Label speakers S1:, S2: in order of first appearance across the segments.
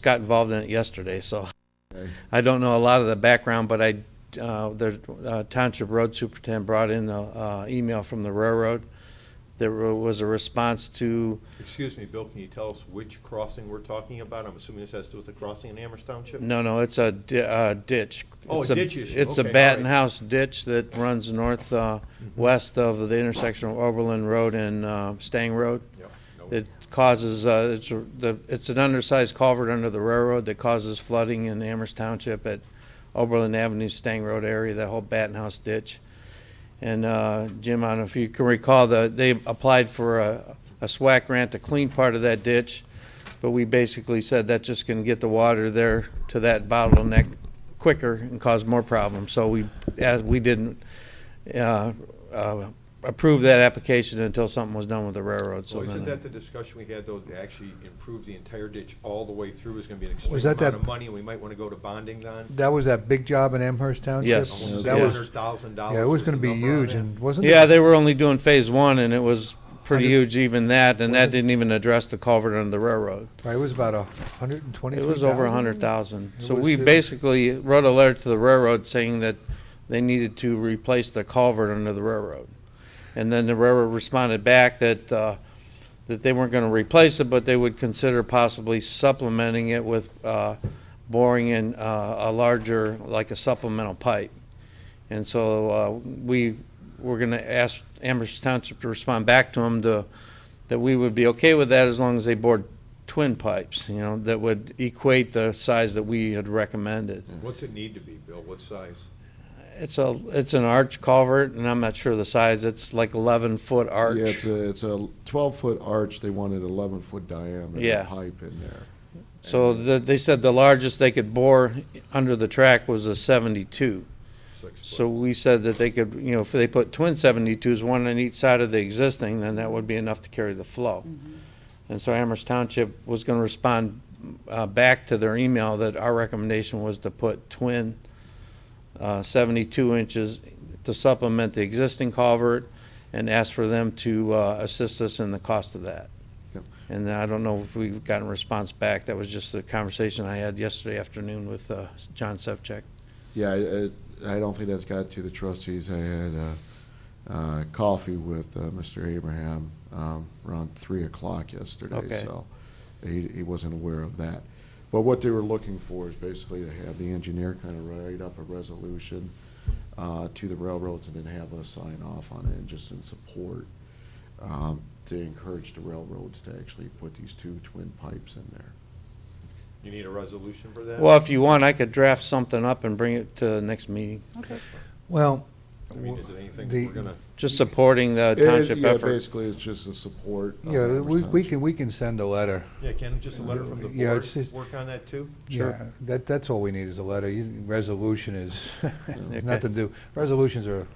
S1: got involved in it yesterday, so
S2: Okay.
S1: I don't know a lot of the background, but I, uh, the uh, Township Road Superintendent brought in a, uh, email from the railroad. There wa- was a response to,
S3: Excuse me, Bill, can you tell us which crossing we're talking about? I'm assuming this has to do with the crossing in Amherst Township?
S1: no, no, it's a di- uh, ditch.
S3: Oh,
S1: It's
S3: a ditch issue.
S1: It's a
S3: Okay, all
S1: Batten
S3: right. Mm-hmm.
S1: House ditch that runs north, uh, west of the intersection of Oberlin Road and, uh, Stang Road.
S3: Yeah, no.
S1: It causes, uh, it's, a- the, it's an undersized culvert under the railroad that causes flooding in Amherst Township at Oberlin Avenue, Stang Road area, that whole Batten House ditch. And, uh, Jim, I don't know if you can recall, the, they applied for a, a SWAC grant to clean part of that ditch, but we basically said that's just gonna get the water there to that bottleneck quicker and cause more problems, so we, as, we didn't, uh, uh, approve that application until something was done with the railroad, so
S3: So
S1: then.
S3: isn't that the discussion we had, though, to actually improve the entire ditch all the way through is gonna be an
S4: Was
S3: extreme
S4: that
S3: amount
S4: that-
S3: of money, and we might wanna go to bonding on?
S4: That was that big job in Amherst Township?
S1: Yes.
S3: Almost
S4: That was,
S3: $700,000
S4: yeah, it was
S3: the
S4: gonna be
S3: number on
S4: huge
S3: that.
S4: and wasn't it?
S1: Yeah, they were only doing phase one, and it was pretty
S4: Hundred-
S1: huge even that, and
S4: Was
S1: that
S4: it-
S1: didn't even address the culvert under the railroad.
S4: Right, it was about a hundred and twenty-three
S1: It
S4: thousand?
S1: was over a hundred thousand.
S4: It
S1: So
S4: was,
S1: we
S4: uh,
S1: basically wrote a letter to the railroad saying that they needed to replace the culvert under the railroad. And then the railroad responded back that, uh, that they weren't gonna replace it, but they would consider possibly supplementing it with, uh, boring in, uh, a larger, like a supplemental pipe. And so, uh, we were gonna ask Amherst Township to respond back to them to, that we would be okay with that as long as they bored twin pipes, you know, that would equate the size that we had recommended.
S3: What's it need to be, Bill? What size?
S1: It's a, it's an arch culvert, and I'm not sure the size, it's like eleven foot
S2: Yeah,
S1: arch.
S2: it's a, it's a twelve-foot arch, they wanted eleven-foot
S1: Yeah.
S2: diameter pipe in there.
S1: So the, they said the largest they could bore under the track was a seventy-two.
S3: Six
S1: So
S3: foot?
S1: we said that they could, you know, if they put twin seventy-twos, one on each side of the existing, then that would be enough to carry the flow. And so Amherst Township was gonna respond, uh, back to their email that our recommendation was to put twin, uh, seventy-two inches to supplement the existing culvert and ask for them to, uh, assist us in the cost of that.
S2: Yep.
S1: And I don't know if we've gotten a response back. That was just the conversation I had yesterday afternoon with, uh, John Sevchek.
S2: Yeah, I- I, I don't think that's got to the trustees. I had uh, uh, coffee with uh, Mr. Abraham um, around three o'clock yesterday,
S1: Okay.
S2: so he, he wasn't aware of that. But what they were looking for is basically to have the engineer kind of write up a resolution uh, to the railroads and then have us sign off on it and just in support um, to encourage the railroads to actually put these two twin pipes in there.
S3: You need a resolution for that?
S1: Well, if you want, I could draft something up and bring it to the next meeting,
S4: Well,
S3: I mean, is it anything that
S4: The-
S3: we're gonna?
S1: just supporting the township
S2: It- yeah,
S1: effort.
S2: Basically, it's just a support. of
S4: yeah,
S2: Amherst
S4: we, we
S2: Township.
S4: can, we can send a letter.
S3: Yeah, Ken, just a letter from the
S4: Yeah, it's
S3: board,
S4: just-
S3: work on that too?
S4: Sure. That, that's all we need is a letter. You- Resolution is, it's nothing to do, resolutions are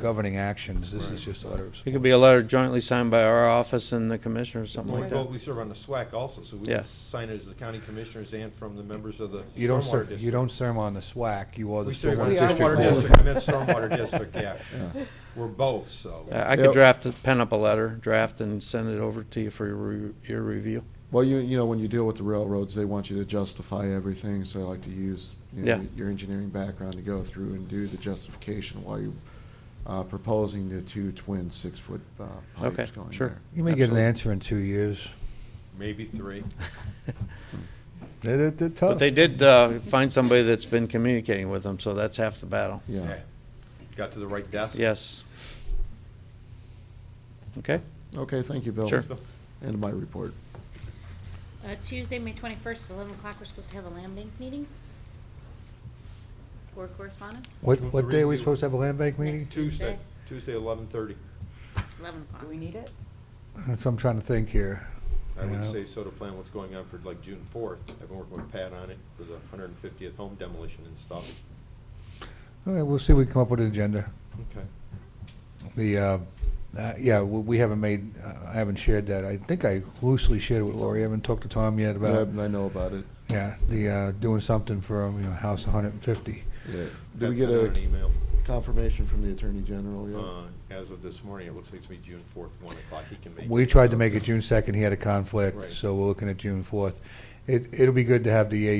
S4: governing actions. This is just a letter of
S1: It
S4: support.
S1: could be a letter jointly signed by our office and the commissioner or something like
S3: Well,
S1: that.
S3: we serve on the SWAC also, so we
S1: Yeah.
S3: can sign it as the county commissioners and from the members of the
S4: You don't,
S3: stormwater
S4: ser-
S3: district.
S4: you don't serve on the SWAC, you are the
S3: We serve on
S4: stormwater
S3: the
S4: district.
S3: stormwater
S4: board.
S3: district, I meant stormwater district, yeah. We're both, so.
S1: I I
S2: Yep.
S1: could draft, pen up a letter, draft and send it over to you for your, re- your review.
S2: Well, you, you know, when you deal with the railroads, they want you to justify everything, so I like to use you know,
S1: Yeah.
S2: your engineering background to go through and do the justification while you uh, proposing the two twin six foot uh, pipes
S1: Okay,
S2: going
S1: sure.
S2: there.
S4: You may get an
S2: Absolutely.
S4: answer in two years.
S3: Maybe three.
S4: They're, they're- they're tough.
S1: But they did, uh, find somebody that's been communicating with them, so that's half the battle.
S2: Yeah.
S3: Got to the right desk?
S1: Yes. Okay,
S2: Okay, thank you, Bill.
S1: Sure.
S2: End of my report.
S5: Uh, Tuesday, May 21st, at 11 o'clock, we're supposed to have a land bank meeting for correspondence,
S4: What,
S3: Move
S4: what
S3: to
S4: day are we
S3: review.
S4: supposed to have a land bank meeting?
S3: Tuesday, Tuesday, eleven thirty.
S5: 11 o'clock.
S6: Do we need it?
S4: That's what I'm trying to think here.
S3: I would
S4: Yeah.
S3: say so to plan what's going on for like June fourth. I've been working with Pat on it for the hundred and fiftieth home demolition and stuff.
S4: All right, we'll see if we come up with an agenda.
S3: Okay.
S4: The, uh, uh, yeah, we we haven't made, uh, I haven't shared that. I think I loosely shared it with Lori. I haven't talked to Tom yet about,
S2: I, I know about it.
S4: yeah, the, uh, doing something for, um, you know, House 150.
S2: Yeah. Did we
S3: Pat
S2: get
S3: sent out An
S2: a
S3: email,
S2: confirmation from the Attorney General yet?
S3: uh, as of this morning, it looks like it's gonna be June fourth, one o'clock. He can make.
S4: We tried to make it June 2nd, he had a conflict,
S3: Right.
S4: so we're looking at June 4th. it, it'll be good to have the